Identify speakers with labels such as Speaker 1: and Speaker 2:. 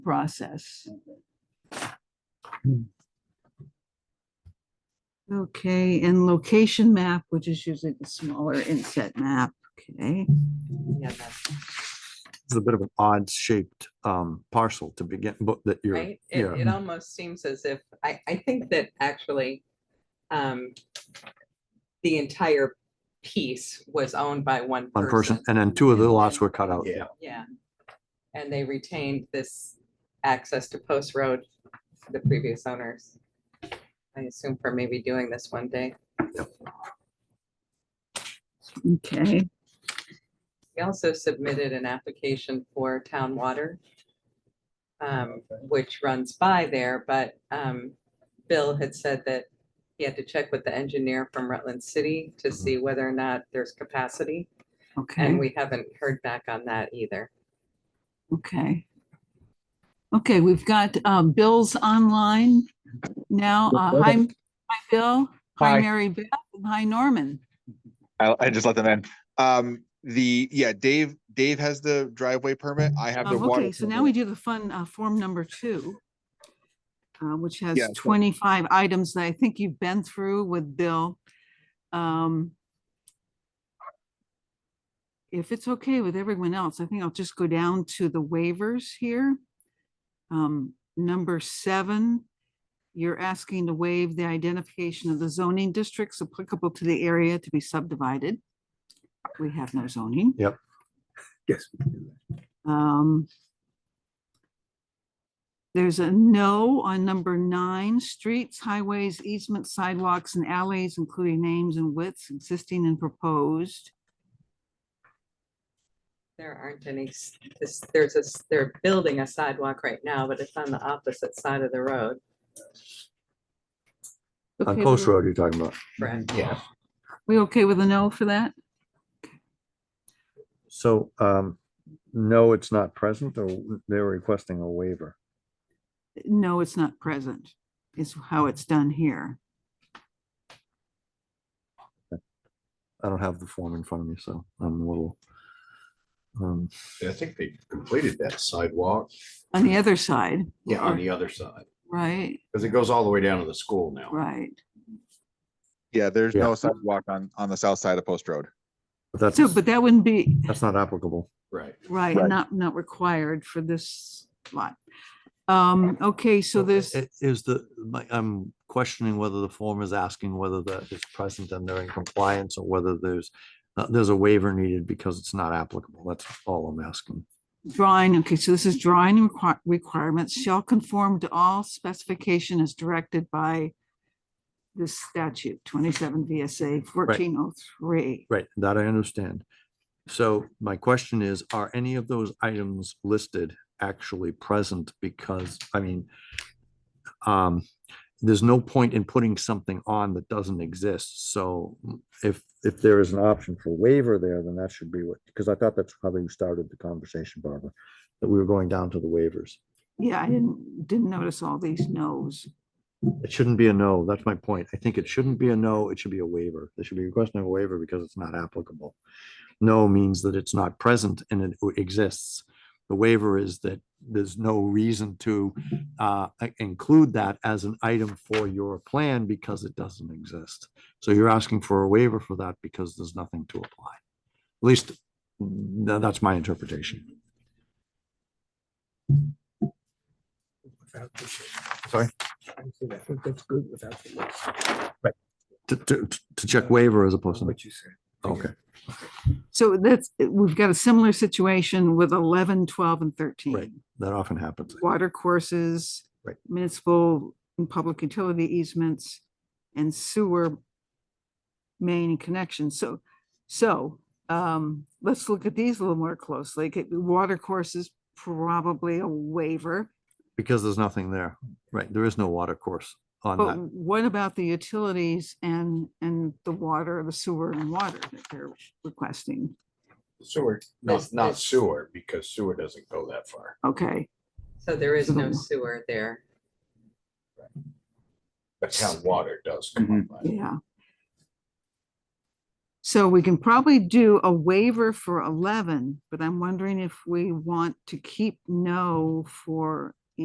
Speaker 1: process. Okay, and location map, which is usually the smaller inset map, okay?
Speaker 2: Yeah, that's
Speaker 3: It's a bit of an odd shaped um parcel to begin, but that you're,
Speaker 2: right. It,
Speaker 3: yeah,
Speaker 2: it almost seems as if, I, I think that actually, um, the entire piece was owned by one
Speaker 3: one person,
Speaker 2: person.
Speaker 3: and then two of the lots
Speaker 2: and-
Speaker 3: were cut out.
Speaker 4: Yeah.
Speaker 2: Yeah. And they retained this access to Post Road, the previous owners. I assume for maybe doing this one day.
Speaker 1: Okay,
Speaker 2: We also submitted an application for town water, um,
Speaker 1: Oh,
Speaker 2: which runs by there, but um, Bill had said that he had to check with the engineer from Rutland City to
Speaker 1: Mm-hmm.
Speaker 2: see whether or not there's capacity, and
Speaker 1: okay,
Speaker 2: we haven't heard back on that either.
Speaker 1: okay. Okay, we've got um, Bill's online now. Uh, Hi, m- hi, Bill. Hi,
Speaker 5: Hi.
Speaker 1: Mary Beth. and Hi, Norman.
Speaker 5: I, I just let them in. Um, the, yeah, Dave, Dave has the driveway permit. I have the
Speaker 1: Um,
Speaker 5: water.
Speaker 1: Okay, so now we do
Speaker 5: permit.
Speaker 1: the fun uh, form number two, uh, which has
Speaker 5: Yeah, so-
Speaker 1: 25 items that I think you've been through with Bill. Um, If it's okay with everyone else, I think I'll just go down to the waivers here. Um, Number seven, you're asking to waive the identification of the zoning districts applicable to the area to be subdivided. We have no zoning.
Speaker 4: Yes.
Speaker 1: Um, There's a no on number nine, streets, highways, easements, sidewalks and alleys, including names and widths existing and proposed.
Speaker 2: There aren't any, s- this, there's a, s- they're building a sidewalk right now, but it's on the opposite side of the road.
Speaker 1: Okay,
Speaker 3: On Post
Speaker 1: we-
Speaker 3: Road you're talking about.
Speaker 2: Correct.
Speaker 1: Mm-hmm,
Speaker 4: Yeah.
Speaker 1: We okay with a no for that?
Speaker 3: So um, no, it's not present, or they're requesting a waiver.
Speaker 1: No, it's not present, is how it's done here.
Speaker 3: I don't have the form in front of me, so I'm a little. Um,
Speaker 4: I think they completed that sidewalk.
Speaker 1: On the other side.
Speaker 4: Yeah,
Speaker 1: or-
Speaker 4: on the other side,
Speaker 1: Right,
Speaker 4: because it goes all the way down to the school now.
Speaker 1: right.
Speaker 5: Yeah, there's
Speaker 3: Yeah.
Speaker 5: no sidewalk on, on the south side of Post Road.
Speaker 3: but that's,
Speaker 1: So, but that wouldn't be,
Speaker 3: that's not applicable.
Speaker 4: Right.
Speaker 1: right,
Speaker 5: Right.
Speaker 1: not, not required for this lot. Um, okay, so there's.
Speaker 3: i- Is the, my- I'm questioning whether the form is asking whether that is present and they're in compliance or whether there's, uh, there's a waiver needed because it's not applicable. That's all I'm asking.
Speaker 1: Drawing, okay, so this is drawing requi- requirements shall conform to all specification as directed by this statute, twenty-seven VSA fourteen oh three.
Speaker 3: Right, that I understand. So my question is, are any of those items listed actually present? Because, I mean, um, there's no point in putting something on that doesn't exist. So if, if there is an option for waiver there, then that should be what, because I thought that's how you started the conversation, Barbara, that we were going down to the waivers.
Speaker 1: Yeah, I didn't, didn't notice all these no's.
Speaker 3: It shouldn't be a no. That's my point. I think it shouldn't be a no. It should be a waiver. There should be a question of a waiver because it's not applicable. No means that it's not present and it o- exists. The waiver is that there's no reason to uh, i- include that as an item for your plan because it doesn't exist. So you're asking for a waiver for that because there's nothing to apply. At least, mm, tha- that's my interpretation.
Speaker 5: Sorry?
Speaker 6: I think that's good without the list.
Speaker 3: To, to, to check waiver as opposed to,
Speaker 6: What you said.
Speaker 3: okay.
Speaker 1: So that's, we've got a similar situation with 11, 12, and thirteen.
Speaker 3: That often happens.
Speaker 1: Water courses.
Speaker 3: Right.
Speaker 1: Municipal and public utility easements and sewer main connections. So, so, um, let's look at these a little more closely. Okay, Water courses, probably a waiver.
Speaker 3: Because there's nothing there, right? There is no water course on
Speaker 1: But
Speaker 3: that.
Speaker 1: what about the utilities and, and the water, the sewer and water that they're requesting?
Speaker 4: Sewer, not,
Speaker 2: That's-
Speaker 4: not
Speaker 2: that's-
Speaker 4: sewer, because sewer doesn't go that far.
Speaker 1: Okay,
Speaker 2: So there is
Speaker 1: So the
Speaker 2: no
Speaker 1: wa-
Speaker 2: sewer there. Mm-hmm.
Speaker 4: But town water does come up. by.
Speaker 1: yeah. So we can probably do a waiver for eleven, but I'm wondering if we want to keep no for